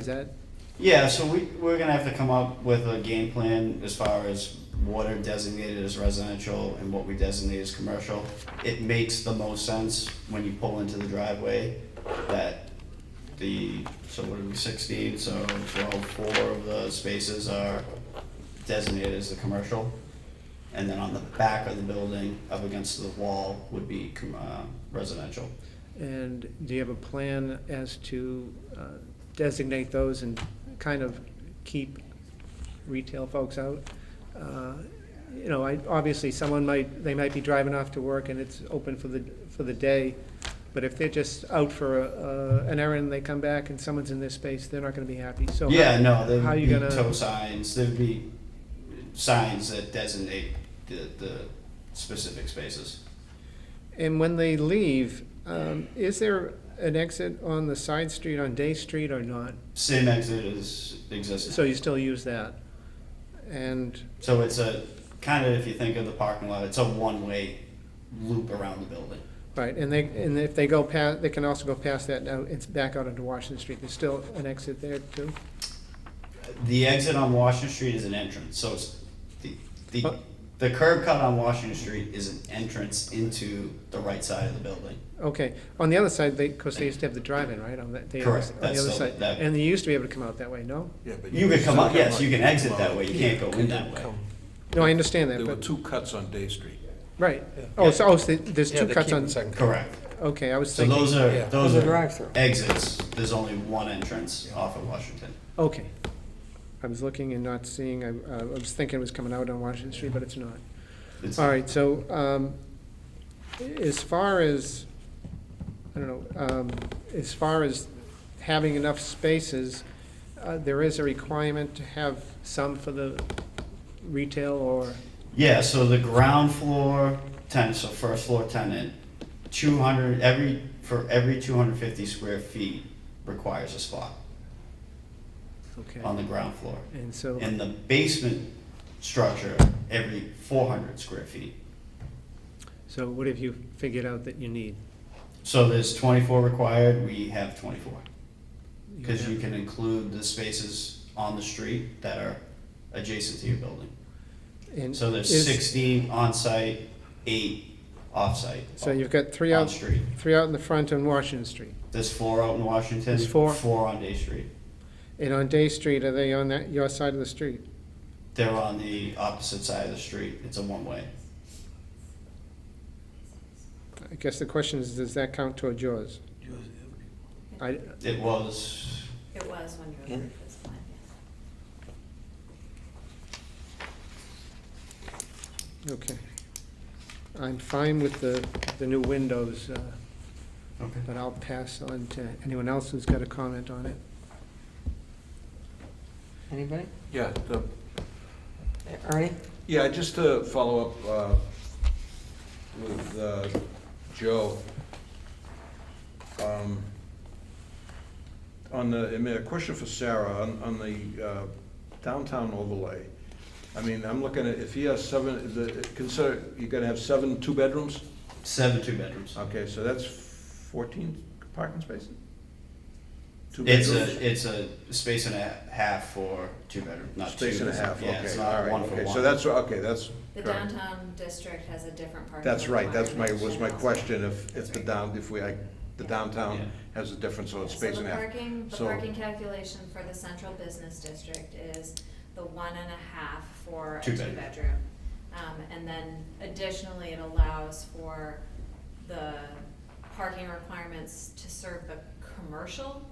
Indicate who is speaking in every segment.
Speaker 1: Is that,
Speaker 2: Yeah, so we, we're gonna have to come up with a game plan as far as what are designated as residential and what we designate as commercial. It makes the most sense when you pull into the driveway that the, so what are we, sixteen, so twelve, four of the spaces are designated as the commercial. And then on the back of the building, up against the wall, would be com- uh, residential.
Speaker 1: and do you have a plan as to uh, designate those and kind of keep retail folks out? Uh, You know, I, obviously, someone might, they might be driving off to work and it's open for the, for the day, but if they're just out for a- a- an errand, they come back and someone's in their space, they're not gonna be happy, so. how-
Speaker 2: Yeah, no, there
Speaker 1: how
Speaker 2: would
Speaker 1: you
Speaker 2: be
Speaker 1: gonna-
Speaker 2: tow signs, there'd be signs that designate the, the specific spaces.
Speaker 1: And when they leave, um, is there an exit on the side street, on Day Street or not?
Speaker 2: Same exit is exists,
Speaker 1: So you still use that? And
Speaker 2: so it's a, kind of if you think of the parking lot, it's a one-way loop around the building.
Speaker 1: Right, and they, and if they go past, they can also go past that, now it's back out onto Washington Street, there's still an exit there too?
Speaker 2: The exit on Washington Street is an entrance, so it's, the, the, the curb cut on Washington Street is an entrance into the right side of the building.
Speaker 1: Okay, on the other side, they, because they used to have the drive-in, right, on that, they, on
Speaker 2: Correct,
Speaker 1: the
Speaker 2: that's
Speaker 1: other
Speaker 2: still-
Speaker 1: side?
Speaker 2: that-
Speaker 1: And they used to be able to come out that way, no?
Speaker 3: Yeah, but
Speaker 2: You could come
Speaker 3: still
Speaker 2: up, yes, you can exit
Speaker 3: out.
Speaker 2: that way, you can't go in that
Speaker 3: You
Speaker 2: way.
Speaker 3: come-
Speaker 1: No, I understand that,
Speaker 3: There were
Speaker 1: but,
Speaker 3: two cuts on Day Street.
Speaker 1: right, oh, so, oh, so there's two cuts on,
Speaker 2: Correct,
Speaker 1: okay, I was
Speaker 2: so
Speaker 1: thinking,
Speaker 2: those are,
Speaker 3: Yeah.
Speaker 2: those
Speaker 4: There's a
Speaker 2: are
Speaker 4: drive-through.
Speaker 2: exits, there's only one entrance off of Washington.
Speaker 1: okay. I was looking and not seeing, I, I was thinking it was coming out on Washington Street, but it's not.
Speaker 2: It's-
Speaker 1: All right, so, um, as far as, I don't know, um, as far as having enough spaces, uh, there is a requirement to have some for the retail or,
Speaker 2: Yeah, so the ground floor tenant, so first floor tenant, two hundred, every, for every two hundred fifty square feet requires a spot on
Speaker 1: okay,
Speaker 2: the ground floor.
Speaker 1: and so,
Speaker 2: Um, And the basement structure, every four hundred square feet.
Speaker 1: so what have you figured out that you need?
Speaker 2: So there's twenty-four required, we have twenty-four. Cause you
Speaker 1: have-
Speaker 2: can include the spaces on the street that are adjacent to your building.
Speaker 1: and
Speaker 2: So there's
Speaker 1: is-
Speaker 2: sixteen on site, eight off-site.
Speaker 1: So you've got three
Speaker 2: On
Speaker 1: out,
Speaker 2: street.
Speaker 1: three out in the front on Washington Street,
Speaker 2: There's four out in Washington.
Speaker 1: There's four.
Speaker 2: Four on Day Street.
Speaker 1: and on Day Street, are they on that, your side of the street?
Speaker 2: They're on the opposite side of the street. It's a one-way.
Speaker 1: I guess the question is, does that count towards yours? I,
Speaker 2: It was,
Speaker 5: It was when you were first this plan, yes.
Speaker 1: Okay. I'm fine with the, the new windows, uh,
Speaker 2: okay.
Speaker 1: but I'll pass on to anyone else who's got a comment on it.
Speaker 4: Anybody?
Speaker 3: Yeah, the,
Speaker 4: Ernie?
Speaker 3: yeah, just to follow up uh, with uh, Joe. um, On the, I mean, a question for Sarah, on, on the uh, downtown overlay. I mean, I'm looking at, if he has seven, the, consider, you're gonna have seven two-bedrooms?
Speaker 2: Seven two-bedrooms.
Speaker 3: Okay, so that's fourteen parking spaces? Two
Speaker 2: It's
Speaker 3: bedrooms?
Speaker 2: a, it's a space and a half for two-bedroom, not two.
Speaker 3: Space and a half,
Speaker 2: Yeah, it's
Speaker 3: okay,
Speaker 2: not
Speaker 3: all right,
Speaker 2: one for
Speaker 3: okay,
Speaker 2: one.
Speaker 3: so that's, okay, that's.
Speaker 5: The
Speaker 3: correct.
Speaker 5: downtown district has a different parking.
Speaker 3: That's right, that's my, was my
Speaker 5: requirement.
Speaker 3: question, if, if the down, if we, I, the
Speaker 2: Yeah.
Speaker 3: downtown has a difference, so it's
Speaker 5: So
Speaker 3: space
Speaker 5: the
Speaker 3: and a half.
Speaker 5: parking, the
Speaker 3: So-
Speaker 5: parking calculation for the central business district is the one and a half for a
Speaker 2: Two bedroom.
Speaker 5: two-bedroom. Um, and then additionally, it allows for the parking requirements to serve the commercial.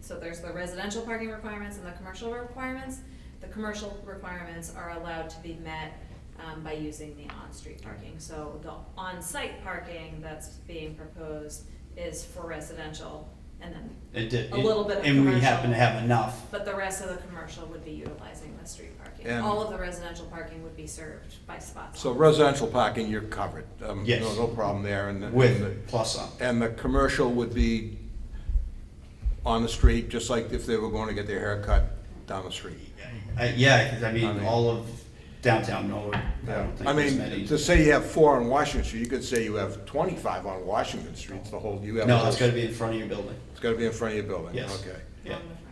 Speaker 5: So there's the residential parking requirements and the commercial requirements. The commercial requirements are allowed to be met, um, by using the on-street parking. So the on-site parking that's being proposed is for residential, and then
Speaker 2: It did.
Speaker 5: a little bit of
Speaker 2: And we
Speaker 5: commercial.
Speaker 2: happen to have enough.
Speaker 5: but the rest of the commercial would be utilizing the street parking.
Speaker 3: And-
Speaker 5: All of the residential parking would be served by spots.
Speaker 3: So residential parking, you're covered, um,
Speaker 2: Yes.
Speaker 3: no, no problem there, and. the- and the-
Speaker 2: With plus some.
Speaker 3: And the commercial would be on the street, just like if they were going to get their hair cut down the street.
Speaker 2: Uh, yeah, 'cause I
Speaker 3: I mean-
Speaker 2: mean, all of downtown Norwood, I don't think
Speaker 3: I
Speaker 2: there's
Speaker 3: mean,
Speaker 2: many.
Speaker 3: to say you have four on Washington Street, you could say you have twenty-five on Washington Street, the whole, you have.
Speaker 2: No, it's
Speaker 3: those-
Speaker 2: gotta be in front of your building.
Speaker 3: It's gotta be in front of your building?
Speaker 2: Yes.
Speaker 3: Okay.
Speaker 2: Yeah.
Speaker 5: Along the front